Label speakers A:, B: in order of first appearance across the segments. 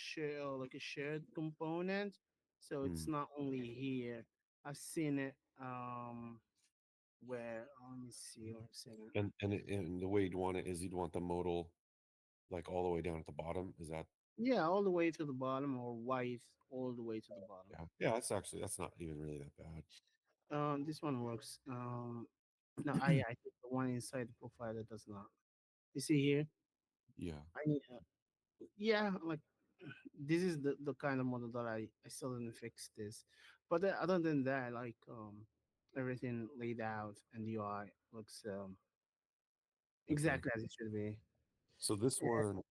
A: share or like a shared component. So it's not only here. I've seen it um where uh, let me see one second.
B: And and it- and the way you'd want it is you'd want the modal, like all the way down at the bottom. Is that
A: Yeah, all the way to the bottom or white all the way to the bottom.
B: yeah? Yeah, that's actually that's not even really that bad.
A: Um, this one works. Um, no, I I think the one inside the profile that does not. You see here,
B: Yeah.
A: I need. Uh, yeah, like this is the the kind of model that I I still didn't fix this, but then other than that, like um, everything laid out and the UI looks um exactly as it should be.
B: So this
A: Yeah.
B: one,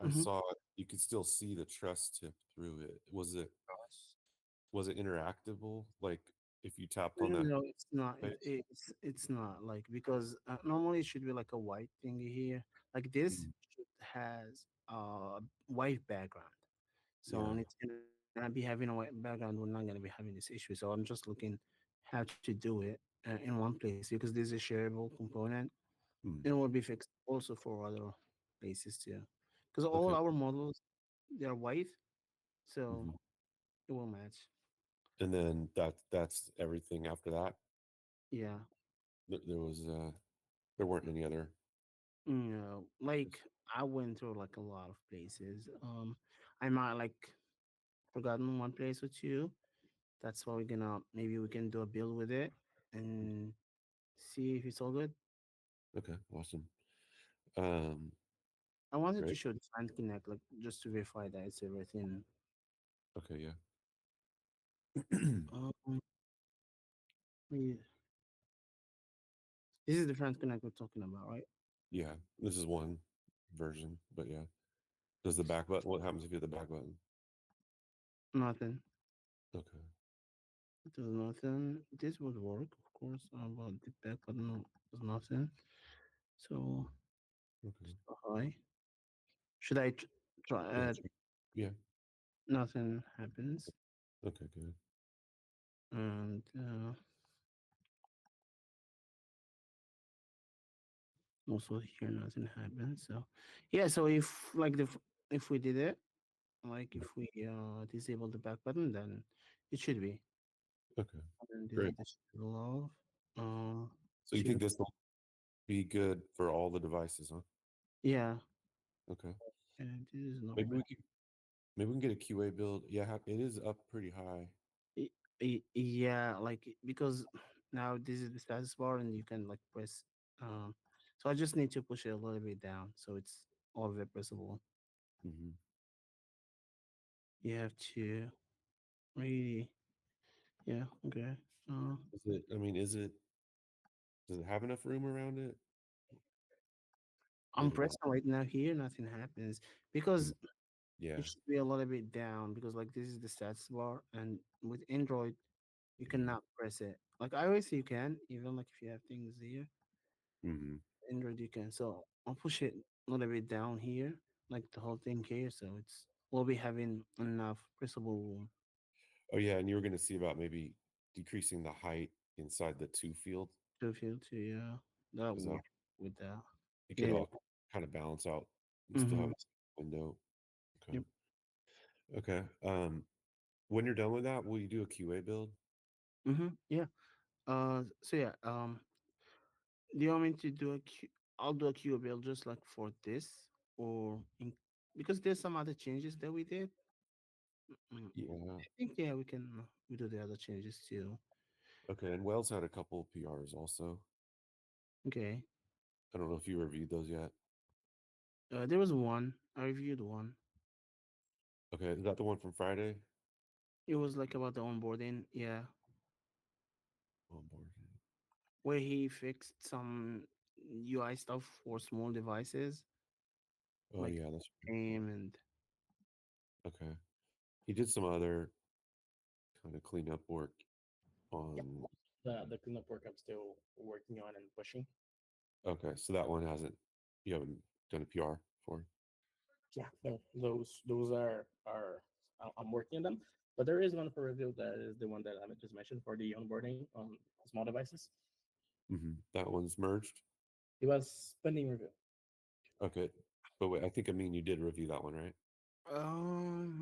B: I
A: Mhm.
B: saw it- you could still see the truss tip through it. Was it was it interactable? Like if you tapped on
A: No,
B: that,
A: no, it's not.
B: Right.
A: It, it's it's not like because uh, normally it should be like a white thing here. Like this
B: Mm.
A: should has a white background, so
B: Yeah.
A: when it's gonna be having a white background, we're not gonna be having this issue. So I'm just looking how to do it uh, in one place because there's a shareable component.
B: Mm.
A: It will be fixed also for other places too, because all
B: Okay.
A: our models they are white, so
B: Mhm.
A: it will match.
B: and then that that's everything after that.
A: Yeah.
B: There, there was uh there weren't any other.
A: you know, like I went through like a lot of places. Um, I might like forgotten one place or two. That's why we're gonna maybe we can do a build with it and see if it's all good.
B: Okay, awesome. Um,
A: I wanted to
B: Great.
A: show Design Connect, like just to verify that it's everything.
B: okay, yeah.
A: Um, yeah. This is the Design Connect we're talking about, right?
B: yeah, this is one version, but yeah. Does the back button? What happens if you hit the back button?
A: Nothing.
B: Okay.
A: There's nothing. This would work, of course, uh, but the back button was nothing. So
B: Okay.
A: Hi. Should I tr- try?
B: Yeah,
A: Uh,
B: check- yeah.
A: nothing happens,
B: Okay. Good.
A: and uh, also here nothing happens. So, yeah. So if like the f- if we did it, like if we uh disable the back button, then it should be.
B: Okay.
A: And
B: Great.
A: Love. Uh,
B: So you think
A: Sure.
B: this will be good for all the devices, huh?
A: yeah.
B: Okay.
A: And this is not.
B: Maybe we can. Maybe we can get a QA build. Yeah, ha- it is up pretty high.
A: Y- Yeah, like because now this is the status bar and you can like press um so I just need to push it a little bit down so it's all very pressable.
B: Mm-hmm.
A: You have to really yeah, okay. Uh,
B: Is it? I mean, is it? Does it have enough room around it?
A: I'm
B: Maybe not.
A: pressing right now here, nothing happens because
B: Yeah.
A: it should be a little bit down because like this is the stats bar and with Android you cannot press it. Like iOS you can, even like if you have things here.
B: Mm-hmm.
A: Android you can. So I'll push it a little bit down here, like the whole thing here. So it's we'll be having enough pressable room.
B: Oh yeah, and you were going to see about maybe decreasing the height inside the two field.
A: to feel to yeah. That
B: Is
A: would
B: that-
A: work with that.
B: It could
A: Yeah.
B: all kind of balance out. and still have
A: Mhm.
B: a window. Okay.
A: Yep.
B: Okay. Um, when you're done with that, will you do a QA build?
A: Mm-hmm. Yeah. Uh so yeah, um do you want me to do a Q I'll do a Q build just like for this or in because there's some other changes that we did. Mm,
B: Yeah.
A: I think yeah we can uh, we do the other changes too.
B: Okay. And Wells had a couple PRs also.
A: Okay.
B: I don't know if you reviewed those yet.
A: Uh, there was one. I reviewed one.
B: Okay. Is that the one from Friday?
A: It was like about the onboarding, yeah.
B: On board.
A: where he fixed some UI stuff for small devices,
B: Oh
A: Like-
B: yeah, that's
C: Mm-hmm.
B: right.
A: game and
B: okay. He did some other kind of cleanup work on.
C: the the cleanup work I'm still working on and pushing.
B: Okay, so that one hasn't. You haven't done a PR for.
C: Yeah, no, those those are are I- I'm working on them. But there is one for review that is the one that I just mentioned for the onboarding on small devices.
B: Mm-hmm. That one's merged.
C: It was pending review.
B: Oh, Okay, but wait, I think I mean you did review that one, right?
A: um